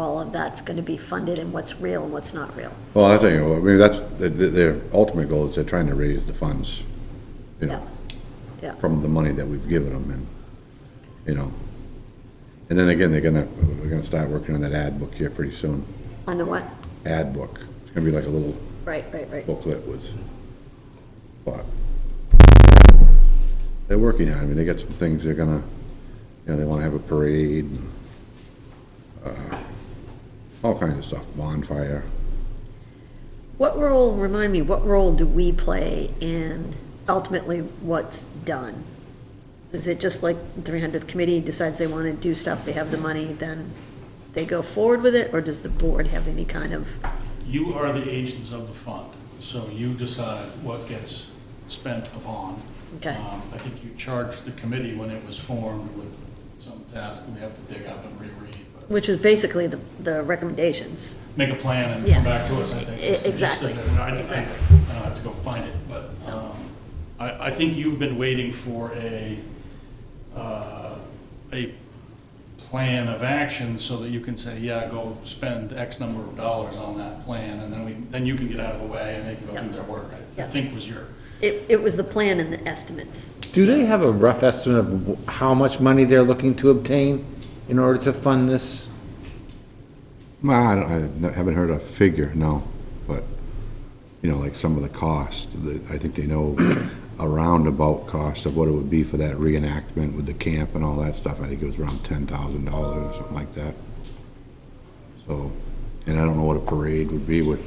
of that's going to be funded and what's real and what's not real. Well, I think, I mean, that's, the- the- their ultimate goal is they're trying to raise the funds, you Yeah, know, yeah. from the money that we've given them and, you know. And then again, they're gonna, we're gonna start working on that ad book here pretty soon, On the what? ad book. It's gonna be like a little Right, right, right. booklet with, but they're working on it. I mean, they got some things they're gonna, you know, they wanna have a parade, and, uh, all kinds of stuff, bonfire. What role, remind me, what role do we play in ultimately what's done? Is it just like the 300th committee decides they want to do stuff, they have the money, then they go forward with it? Or does the board have any kind of, You are the agents of the fund, so you decide what gets spent upon. Okay. Um, I think you charged the committee when it was formed with some tasks that we have to dig up and reread, but which is basically the, the recommendations? make a plan and Yeah. come back to us, I think. E- is the gist of exactly, it. And I- I- exactly. I don't have to go find it, but um, I, I think you've been waiting for a, uh, a plan of action so that you can say, yeah, go spend X number of dollars on that plan, and then we, then you can get out of the way and they can go do Yep. their work, I- I Yep. think was your. It, it was the plan and the estimates. Do they have a rough estimate of wh- how much money they're looking to obtain in order to fund this? Well, I don't, I haven't heard a figure, no, but, you know, like some of the cost, the- I think they know a roundabout cost of what it would be for that reenactment with the camp and all that stuff, I think it was around ten thousand dollars or something like that. So, and I don't know what a parade would be, we're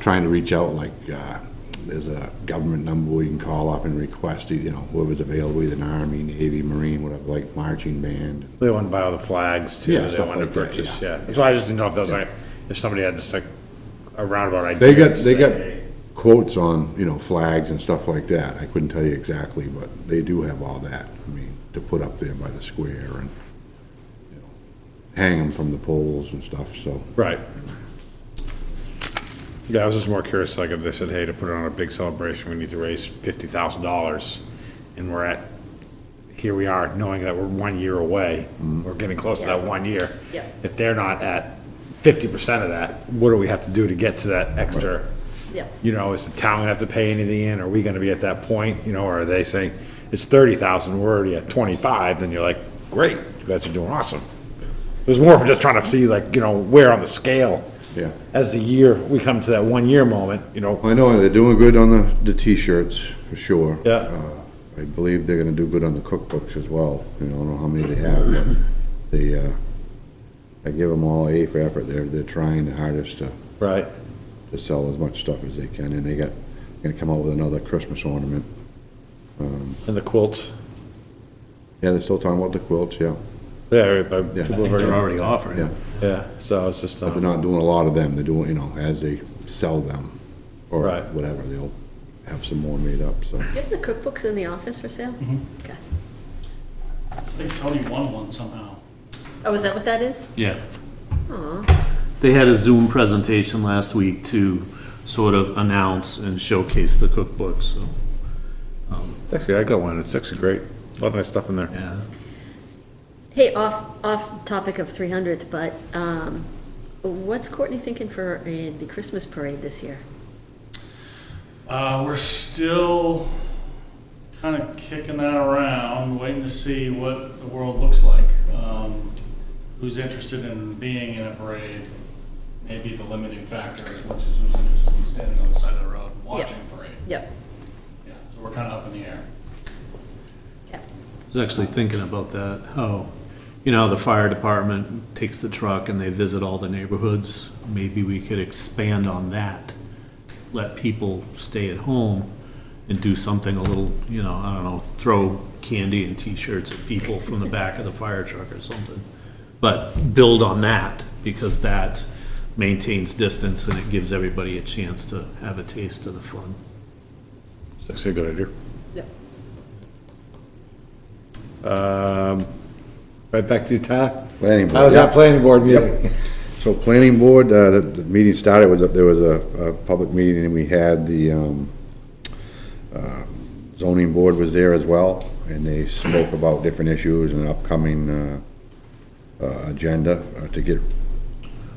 trying to reach out, like, uh, there's a government number we can call up and request, you know, whoever's available, either an army, navy, marine, whatever, like marching band. They want to buy all the flags too, Yeah, they stuff want to like that, purchase, yeah. yeah. So I just didn't know if that was like, if somebody had just like a roundabout idea. They got, to they got say, quotes on, you know, flags and stuff like that. I couldn't tell you exactly, but they do have all that, I mean, to put up there by the square and, you know, hang them from the poles and stuff, so. Right. Yeah, I was just more curious, like if they said, hey, to put on a big celebration, we need to raise fifty thousand dollars. And we're at, here we are, knowing that we're one year away, we're getting close to that Yeah. one year. Yeah. If they're not at fifty percent of that, what do we have to do to get to that extra? Yeah. you know, is the town gonna have to pay anything in, are we gonna be at that point, you know, or are they saying, it's thirty thousand, we're already at twenty-five, then you're like, great, you guys are doing awesome. It was more for just trying to see like, you know, where on the scale. Yeah. As the year, we come to that one-year moment, you know, I know they're doing good on the, the t-shirts, for sure. Yeah. Uh, I believe they're gonna do good on the cookbooks as well. You know, I don't know how many they have, but they, uh, I give them all A for effort. They're, they're trying the hardest to right, to sell as much stuff as they can, and they got, gonna come out with another Christmas ornament. and the quilts, Yeah, they're still talking about the quilts, yeah, yeah, but Yeah. people have already, already offering. yeah. yeah, so it's just, But they're um, not doing a lot of them, they're doing, you know, as they sell them, or Right. whatever, they'll have some more made up, so. Do you have the cookbooks in the office for sale? Okay. I think Tony won one somehow. Oh, is that what that is? Yeah. Aw, They had a Zoom presentation last week to sort of announce and showcase the cookbook, so, actually, I got one, it's actually great, a lot of nice stuff in there. yeah. Hey, off, off topic of 300th, but um, what's Courtney thinking for uh, the Christmas parade this year? Uh, we're still kind of kicking that around, waiting to see what the world looks like. Um, who's interested in being in a parade? Maybe the limiting factor is which is who's interested in standing on the side of the road and watching a parade. Yep. Yeah, so we're kind of up in the air. Yeah. I was actually thinking about that, how, you know, the fire department takes the truck and they visit all the neighborhoods. Maybe we could expand on that, let people stay at home and do something a little, you know, I don't know, throw candy and T-shirts at people from the back of the fire truck or something. But build on that, because that maintains distance and it gives everybody a chance to have a taste of the fun. It's actually a good idea. Yep. Um, right back to you, Ty. Planning How board, was that yeah. planning board meeting? So planning board, uh, the, the meeting started with, a- there was a, a public meeting, and we had the, um, uh, zoning board was there as well, and they spoke about different issues and upcoming, uh, uh, agenda uh, to get